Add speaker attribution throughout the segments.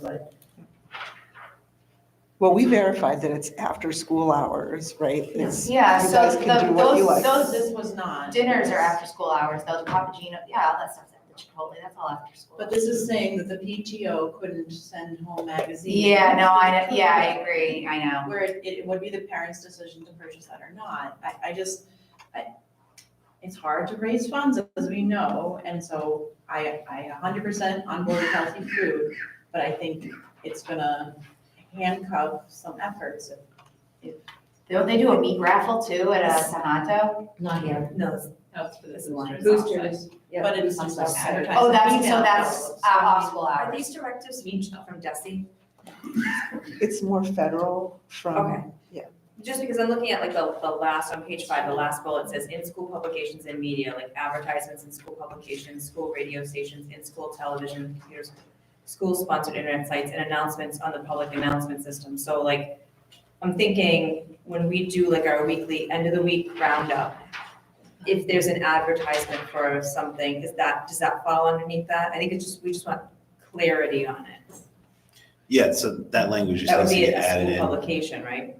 Speaker 1: website.
Speaker 2: Well, we verified that it's after school hours, right? It's-
Speaker 3: Yeah,
Speaker 2: You
Speaker 3: so
Speaker 2: guys
Speaker 3: the,
Speaker 2: can do what you
Speaker 3: those,
Speaker 2: like.
Speaker 3: those
Speaker 1: This was not.
Speaker 3: dinners are after school hours, those Papagino, yeah, all that stuff's at the Chipotle, that's all after school.
Speaker 1: But this is saying that the PTO couldn't send home magazines.
Speaker 3: Yeah, no, I, yeah, I agree, I know.
Speaker 1: Where it, it would be the parents' decision to purchase that or not. I, I just, I, it's hard to raise funds, as we know, and so I, I a hundred percent on board with healthy food, but I think it's gonna handcuff some efforts.
Speaker 3: Don't they do a meat raffle too at a Sanato?
Speaker 4: Not here.
Speaker 1: No. That's for this.
Speaker 4: Boosters.
Speaker 1: Boosters.
Speaker 4: Yeah,
Speaker 1: But it's
Speaker 4: I'm sorry.
Speaker 1: advertised.
Speaker 3: Oh, that's,
Speaker 1: Email.
Speaker 3: so that's uh, off school
Speaker 4: Are
Speaker 3: hours.
Speaker 4: these directives from Desi?
Speaker 2: It's more federal from,
Speaker 4: Just because I'm looking at like the, the last, on page five, the last bullet says in-school publications and media, like advertisements in school publications, school radio stations, in-school television, computers, school-sponsored internet sites, and announcements on the public announcement system. So like, I'm thinking, when we do like our weekly, end of the week roundup, if there's an advertisement for something, is that, does that fall underneath that? I think it's just, we just want clarity on it.
Speaker 5: Yeah, so that language just
Speaker 4: That would
Speaker 5: has to
Speaker 4: be
Speaker 5: get
Speaker 4: a
Speaker 5: added
Speaker 4: school
Speaker 5: in.
Speaker 4: publication, right?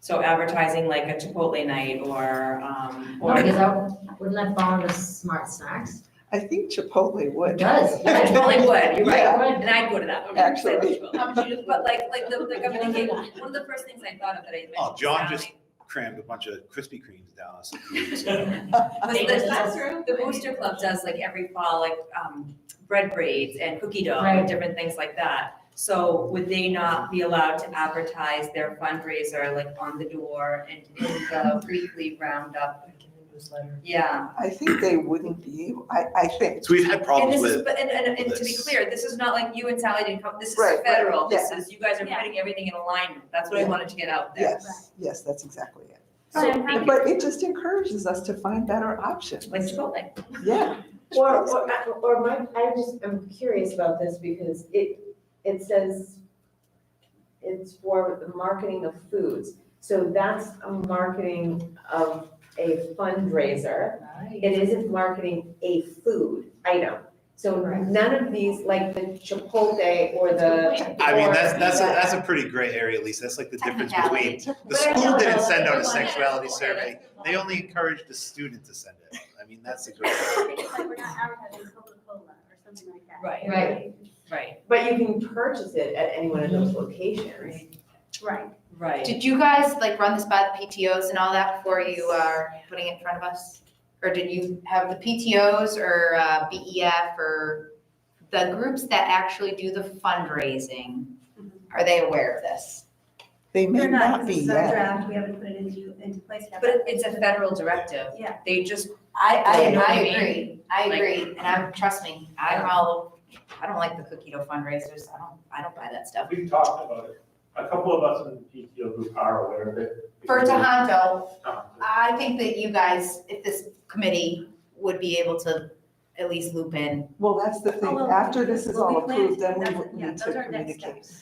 Speaker 4: So advertising like a Chipotle night or, um,
Speaker 6: No,
Speaker 4: or,
Speaker 6: because I, wouldn't that fall under smart snacks?
Speaker 2: I think Chipotle
Speaker 6: It
Speaker 2: would.
Speaker 6: does.
Speaker 4: Yeah, Chipotle would, you're right,
Speaker 6: Yeah.
Speaker 4: and I'd go to that one.
Speaker 2: Actually.
Speaker 1: How much you just-
Speaker 4: But like, like, the like I'm thinking, one of the first things I thought of that I mentioned.
Speaker 5: Oh, John
Speaker 4: was
Speaker 5: just- Crammed a bunch of Krispy Kremes down us. a few weeks ago.
Speaker 4: Sally,
Speaker 1: Oh,
Speaker 4: was the, the Booster Club does like every fall, like, um, bread braids and cookie dough, and
Speaker 6: Right.
Speaker 4: different things like that. So would they not be allowed to advertise their fundraiser like on the door and in the weekly roundup? Yeah,
Speaker 2: I think they wouldn't be, able- I, I think,
Speaker 5: So we've had
Speaker 4: and
Speaker 5: problems
Speaker 4: this is,
Speaker 5: with,
Speaker 4: but, and, and, and to be
Speaker 5: this.
Speaker 4: clear, this is not like you and Sally didn't come, this
Speaker 2: Right,
Speaker 4: is
Speaker 2: right,
Speaker 4: federal, this
Speaker 2: yeah.
Speaker 4: is, you guys are
Speaker 6: Yeah.
Speaker 4: putting everything in alignment, that's what I
Speaker 2: Yeah.
Speaker 4: wanted to get out there.
Speaker 2: yes, yes, that's exactly it.
Speaker 6: So I'm happy-
Speaker 2: But it just encourages us to find better options.
Speaker 4: Like Chipotle.
Speaker 2: Yeah.
Speaker 7: Or, or, uh, or my, I just, I'm curious about this because it, it says it's for the marketing of foods. So that's a marketing of a fundraiser. It isn't marketing a food item. So none of these, like the Chipotle or the.
Speaker 5: I mean,
Speaker 7: or-
Speaker 5: that's, that's, a- that's a pretty gray area, Lisa. That's like the
Speaker 3: Kind of
Speaker 5: difference between, the
Speaker 7: But I
Speaker 5: school
Speaker 7: know
Speaker 5: didn't
Speaker 7: that
Speaker 5: send out a
Speaker 7: everyone-
Speaker 5: sexuality
Speaker 7: Okay,
Speaker 5: survey.
Speaker 7: that's-
Speaker 5: They only encouraged the student to send it. out. I mean, that's the gray.
Speaker 8: I think it's like we're not advertising Coca-Cola or something like that.
Speaker 4: Right.
Speaker 6: Right.
Speaker 4: Right,
Speaker 7: But you can purchase it at any one of those locations.
Speaker 8: Right.
Speaker 4: right.
Speaker 3: Did you guys like run this by the PTOs and all that before you are putting it in front of us? Or did you have the PTOs or uh, BEF or the groups that actually do the fundraising? Are they aware of this?
Speaker 2: They may
Speaker 8: They're
Speaker 2: not
Speaker 8: because
Speaker 2: be
Speaker 8: it's a
Speaker 2: yet.
Speaker 8: draft, we haven't put it into, into place yet.
Speaker 4: But it- it's a federal directive.
Speaker 8: Yeah.
Speaker 4: They just,
Speaker 3: I,
Speaker 4: You
Speaker 3: I,
Speaker 4: know what
Speaker 3: I
Speaker 4: I mean?
Speaker 3: agree, I
Speaker 4: Like-
Speaker 3: agree, and I'm, trust me, I'm all, I don't like the cookie dough fundraisers, I don't, I don't buy that stuff.
Speaker 9: We've talked about it. A couple of us in the PTO group are aware of it.
Speaker 3: For Tohoto,
Speaker 9: Um,
Speaker 3: I think that you guys, if this committee would be able to at least loop in.
Speaker 2: Well, that's the thing,
Speaker 8: oh, well,
Speaker 2: after this is
Speaker 8: well, we
Speaker 2: all
Speaker 8: plan to-
Speaker 2: approved, then we
Speaker 8: that's-
Speaker 2: would
Speaker 8: yeah,
Speaker 2: need to
Speaker 8: those are next
Speaker 2: communicate.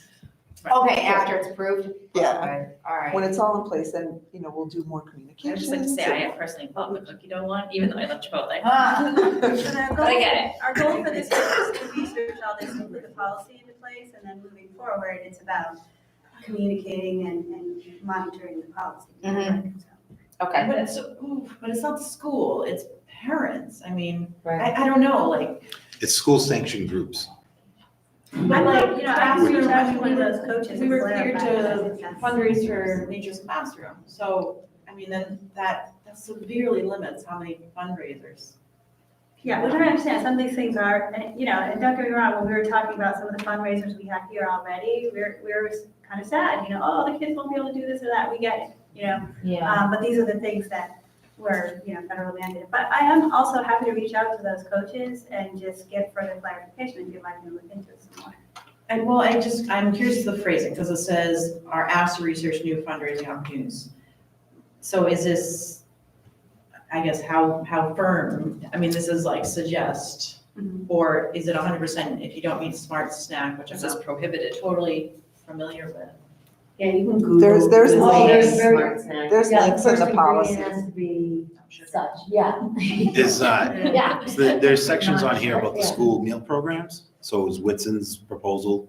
Speaker 3: Okay, after it's approved?
Speaker 2: Yeah,
Speaker 3: Okay, All
Speaker 2: when
Speaker 3: right.
Speaker 2: it's all in place, then, you know, we'll do more
Speaker 4: I
Speaker 2: communications.
Speaker 4: just like to say, I have personally bought the cookie dough one, even though I love Chipotle.
Speaker 3: Huh.
Speaker 8: And our
Speaker 4: But I
Speaker 8: goal-
Speaker 4: get it.
Speaker 8: Our goal for this year is to research all this and put the policy into place, and then moving forward, it's about communicating and, and monitoring the policy.
Speaker 4: Mm-hmm.
Speaker 3: Mhm.
Speaker 8: So-
Speaker 3: Okay,
Speaker 1: But it's, ooh, but it's not the school, it's parents. I mean,
Speaker 4: Right.
Speaker 1: I, I don't know, like.
Speaker 5: It's school sanctioned groups.
Speaker 8: I like, you know, I
Speaker 1: Classroom,
Speaker 8: reached out
Speaker 1: I
Speaker 8: to one of
Speaker 1: mean,
Speaker 8: those coaches.
Speaker 1: We were
Speaker 8: and
Speaker 1: cleared
Speaker 8: clarified that
Speaker 1: to
Speaker 8: it's not-
Speaker 1: fundraise for Nature's Classroom, so, I mean, then that, that severely limits how many fundraisers.
Speaker 8: Yeah, we're trying to understand, some of these things are, and, you know, and don't get me wrong, when we were talking about some of the fundraisers we have here already, we're, we're kind of sad, you know, oh, the kids won't be able to do this or that, we get it, you know?
Speaker 6: Yeah.
Speaker 8: Um, but these are the things that were, you know, federally mandated. But I am also happy to reach out to those coaches and just get further clarification and see if I can look into it some more.
Speaker 1: And well, I just, I'm curious of the phrasing, because it says, are asked to research new fundraising opportunities. So is this, I guess, how, how firm, I mean, this is like suggest, or is it hundred percent if you don't mean smart snack, which I'm
Speaker 4: This is
Speaker 1: not
Speaker 4: prohibited.
Speaker 1: totally familiar with?
Speaker 7: Yeah, you can Google.
Speaker 2: There's- there's
Speaker 7: Google
Speaker 2: links.
Speaker 7: Smart snack.
Speaker 2: There's links in the policy.
Speaker 6: to be
Speaker 1: I'm sure.
Speaker 6: such, yeah.
Speaker 5: It's, uh,
Speaker 6: Yeah.
Speaker 5: so there- there's sections on here about the school meal programs. So is Whitson's proposal